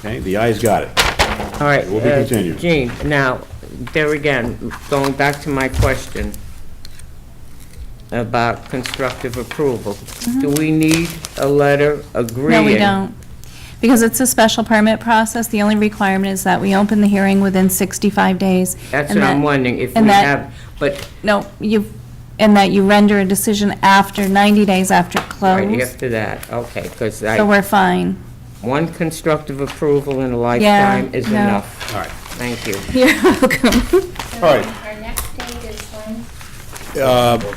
Okay, the ayes got it. All right. We'll be uh, continued. Gene, now, there again, going back to my question about constructive approval. Do we need a letter agreeing? Mm-hmm. No, we don't. Because it's a special permit process, the only requirement is that we open the hearing within 65 days. That's and what I'm that- wondering, if we and that- have, but No, you, and that you render a decision after, 90 days after right close, after that, okay, because so I, we're fine. one constructive approval in a lifetime is no. enough. All right. Thank you. You're welcome. All right, uh, Our next date is when?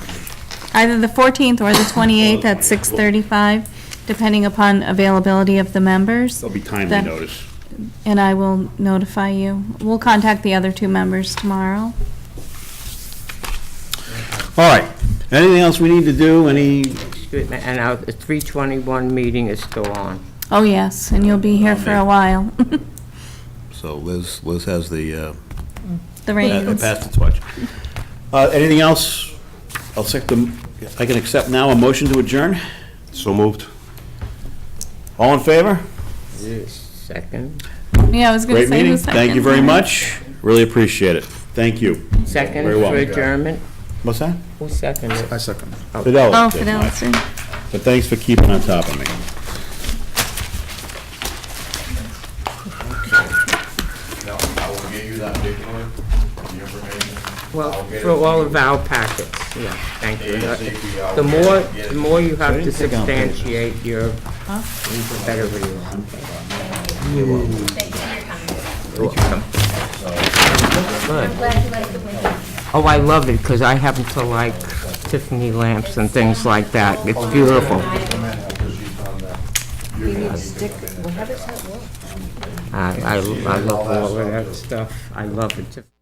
Either the 14th or the 28th at 6:35, depending upon availability of the members. there'll be timely Then- notice. And I will notify you. We'll contact the other two members tomorrow. All right, anything else we need to do, any? Excuse me, And our 321 meeting is still on. Oh, yes, and you'll be here for a while. So Liz, Liz has the, uh, The Uh, reins. Pass the torch. Uh, Anything else? I'll accept them, I can accept now a motion to adjourn? So moved. All in favor? Second, Yeah, I was going to Great say meeting, the second. thank you very much, really appreciate it, thank you. second Very well. for adjournment? What's that? Who seconded? I second. Fidelis. Oh, did mine. Fidelis, yeah. But thanks for keeping on top of me. No, I will give you that paperwork, the information. Well, I'll get it for to all you of our packets, yeah, thank you. ASAP, I'll The get more, it- get it the more you have to didn't think I'll pay this. substantiate your, the better we are. I'm glad you like the winter. Oh, I love it, because I happen to like Tiffany lamps and things like that. It's beautiful. Come in after she's done that. I, I I love all of that stuff. I love it.